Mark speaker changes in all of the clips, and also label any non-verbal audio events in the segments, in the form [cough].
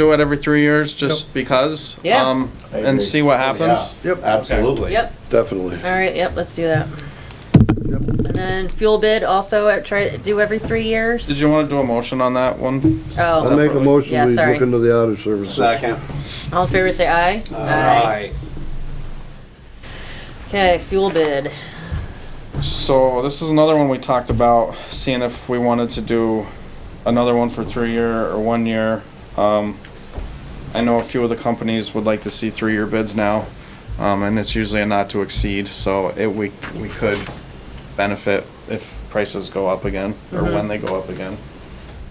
Speaker 1: do it every three years just because.
Speaker 2: Yeah.
Speaker 1: um,
Speaker 3: I
Speaker 1: And
Speaker 3: agree. Oh,
Speaker 1: see what happens.
Speaker 3: Yeah,
Speaker 4: Yep.
Speaker 3: Absolutely.
Speaker 2: Yep,
Speaker 4: Definitely.
Speaker 2: all right, yep, let's do that. And then fuel bid also, uh, try to do every three
Speaker 1: Did
Speaker 2: years.
Speaker 1: you want to do a motion on that one?
Speaker 2: Oh,
Speaker 4: I'll make a
Speaker 2: Yeah,
Speaker 4: motion, we
Speaker 2: sorry.
Speaker 4: look into the audit services.
Speaker 2: all in favor, say aye. Okay, fuel bid.
Speaker 1: So this is another one we talked about, seeing if we wanted to do another one for three year or one year. Um, I know a few of the companies would like to see three year bids now, um, and it's usually a not to exceed, so it, we, we could benefit if prices go up again, or when they go up again.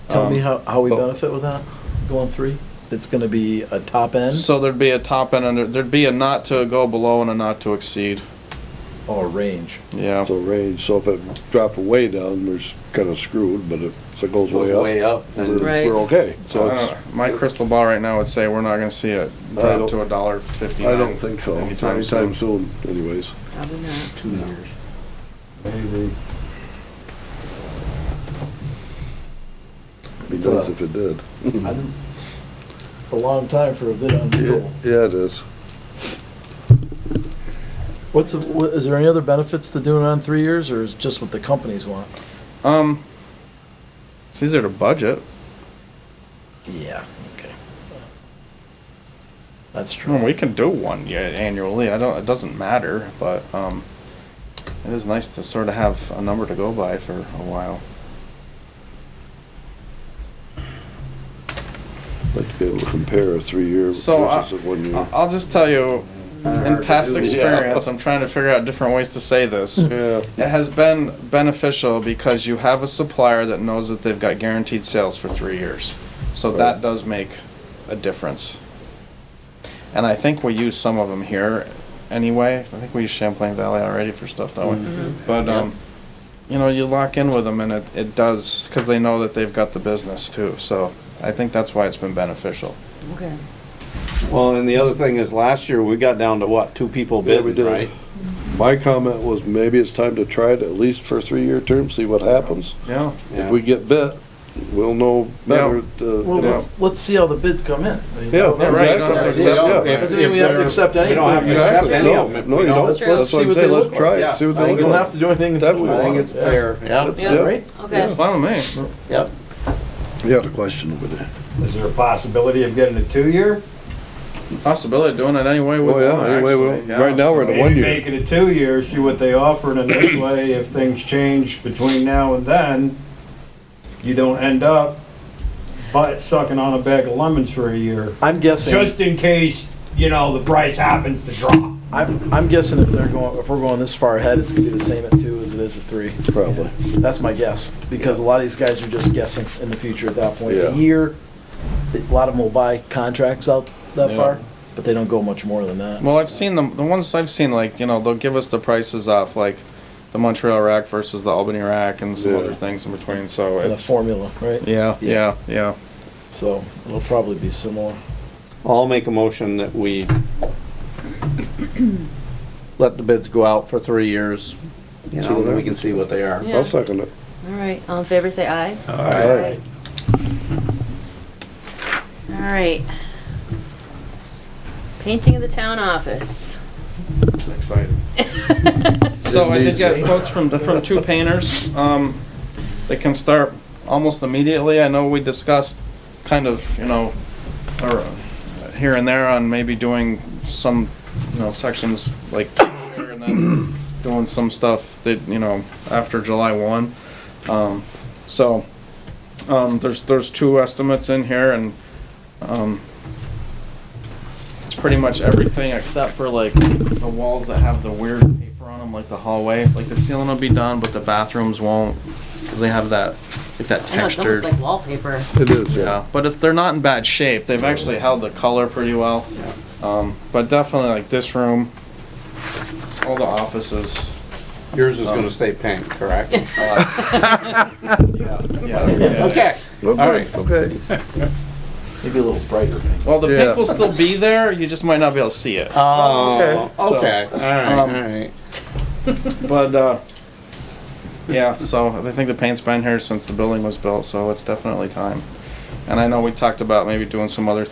Speaker 5: Tell me
Speaker 1: Um,
Speaker 5: how, how we
Speaker 1: oh.
Speaker 5: benefit with that, going three? It's gonna be a top end
Speaker 1: So there'd be a top end, and there- there'd be a not to go below and a not to exceed,
Speaker 5: or range?
Speaker 1: yeah.
Speaker 4: So range, so if it dropped way down, we're kinda screwed, but if it goes way up,
Speaker 3: up,
Speaker 4: we're,
Speaker 2: Right.
Speaker 4: we're okay. So
Speaker 1: I
Speaker 4: it's,
Speaker 1: don't know. Uh, My crystal ball right now would say we're not gonna see it
Speaker 4: I
Speaker 1: drop
Speaker 4: don't-
Speaker 1: to a dollar fifty.
Speaker 4: I don't think so,
Speaker 1: Anytime soon.
Speaker 4: anytime soon anyways.
Speaker 2: Probably not.
Speaker 3: two years.
Speaker 4: Maybe. Be nice if it did.
Speaker 5: I don't- It's a long time for a bid on fuel.
Speaker 4: Yeah, it is.
Speaker 5: What's, the- what- is there any other benefits to doing it on three years, or is it just what the companies want?
Speaker 1: Um, it's easier to budget.
Speaker 5: Yeah, okay. That's
Speaker 1: I mean,
Speaker 5: true.
Speaker 1: we can do one year annually. I don't, it doesn't matter, but, um, it is nice to sort of have a number to go by for a while.
Speaker 4: Like to be able to compare a three-year versus
Speaker 1: So, uh,
Speaker 4: a one-year.
Speaker 1: I- I'll just tell you, in past experience, I'm trying to figure out different ways to say this.
Speaker 4: Yeah.
Speaker 1: It has been beneficial because you have a supplier that knows that they've got guaranteed sales for three years. So that
Speaker 4: Right.
Speaker 1: does make a difference. And I think we use some of them here anyway. I think we use Champlain Valley already for stuff, don't we? But, um, you know, you lock in with them and it, it does, because they know that they've got the business too. So I think that's why it's been beneficial.
Speaker 2: Okay.
Speaker 3: Well, and the other thing is, last year, we got down to what, two people
Speaker 4: Yeah, we
Speaker 3: bidding,
Speaker 4: did.
Speaker 3: right?
Speaker 4: My comment was maybe it's time to try it at least for a three-year term, see what happens.
Speaker 1: Yeah.
Speaker 3: Yeah.
Speaker 4: If we get bit, we'll know better. uh,
Speaker 5: Well,
Speaker 4: you know.
Speaker 5: let's, let's see how the bids come in. I
Speaker 4: Yeah,
Speaker 5: mean, that- that-
Speaker 1: right, you don't
Speaker 4: exactly.
Speaker 1: have to
Speaker 4: Yeah,
Speaker 1: accept
Speaker 4: yeah.
Speaker 1: them.
Speaker 3: If
Speaker 5: Doesn't mean we have to accept
Speaker 3: We don't have
Speaker 5: anything.
Speaker 3: to accept
Speaker 4: Exactly,
Speaker 3: any
Speaker 4: no,
Speaker 3: of them. if
Speaker 4: no,
Speaker 3: we
Speaker 4: you
Speaker 3: don't-
Speaker 4: don't,
Speaker 5: That's true.
Speaker 4: that's what
Speaker 5: See
Speaker 4: I'm
Speaker 5: what they
Speaker 4: saying,
Speaker 5: look
Speaker 4: let's
Speaker 5: like.
Speaker 4: try
Speaker 3: Yeah.
Speaker 4: it, see what
Speaker 5: We
Speaker 4: they
Speaker 5: don't have
Speaker 4: look
Speaker 5: to do anything until we
Speaker 4: Definitely.
Speaker 3: I think
Speaker 5: want.
Speaker 3: it's fair, yeah,
Speaker 4: like.
Speaker 2: Yeah.
Speaker 4: Yeah.
Speaker 5: Right?
Speaker 2: Okay,
Speaker 1: Fine with me.
Speaker 3: yep.
Speaker 4: You had a question over there.
Speaker 6: Is there a possibility of getting a two-year?
Speaker 1: possibility of doing it any way we
Speaker 4: Oh,
Speaker 1: want.
Speaker 4: yeah, any way we
Speaker 1: actually,
Speaker 4: want. Right now, we're
Speaker 1: so-
Speaker 4: The one
Speaker 6: Maybe
Speaker 4: year.
Speaker 6: make it a two-year, see what they offer, and then this
Speaker 4: [clears throat]
Speaker 6: way, if things change between now and then, you don't end up butt sucking on a bag of lemons for a year,
Speaker 5: I'm guessing.
Speaker 6: just in case, you know, the price happens to drop.
Speaker 5: I'm, I'm guessing if they're going, if we're going this far ahead, it's gonna be the same at two as it is at three.
Speaker 4: Probably.
Speaker 5: That's my guess, because a lot of these guys are just guessing in the future at that point.
Speaker 4: Yeah.
Speaker 5: A year, a lot of them will buy contracts out that far, but they don't go much more than that.
Speaker 1: Well, I've seen them. The ones I've seen, like you know, they'll give us the prices off, like the Montreal rack versus the Albany rack, and some
Speaker 4: Yeah.
Speaker 1: other things in between. So
Speaker 5: In a
Speaker 1: it's
Speaker 5: formula, right?
Speaker 1: yeah, yeah,
Speaker 5: Yeah.
Speaker 1: yeah.
Speaker 5: So it'll probably be similar.
Speaker 3: I'll make a motion that we let the bids go out for three years, you know, then we can see what they are.
Speaker 2: Yeah.
Speaker 4: I'll second it.
Speaker 2: all right, all in favor, say aye.
Speaker 4: Aye.
Speaker 2: All right. Painting of the town office.
Speaker 1: It's exciting. so I did get quotes from from two painters. Um, they can start almost immediately. I know we discussed kind of you know, or uh, here and there on maybe doing some you know sections like [coughs] here and then doing some stuff that you know after July one. Um, so um, there's there's two estimates in here and. Um, it's pretty much everything except for like the walls that have the weird paper on them, like the hallway. Like the ceiling will be done, but the bathrooms won't, because they have that like that
Speaker 2: I know, [laughs] it's almost
Speaker 1: textured.
Speaker 2: like wallpaper.
Speaker 4: It is, yeah.
Speaker 1: yeah, but if they're not in bad shape, they've actually held the color pretty well. Um, but definitely like this room, all the offices.
Speaker 3: Yours is gonna stay pink, correct?
Speaker 1: Yeah, yeah.
Speaker 3: Okay.
Speaker 4: All
Speaker 3: right.
Speaker 4: Okay.
Speaker 5: Maybe a little brighter.
Speaker 1: Well, the
Speaker 4: Yeah.
Speaker 1: pink will still be there. You just might not be able to see it.
Speaker 3: Oh,
Speaker 1: So-
Speaker 3: okay, all right, all
Speaker 1: Um,
Speaker 3: right.
Speaker 1: But uh, yeah, so I think the paint's been here since the building was built, so it's definitely time. And I know we talked about maybe doing some other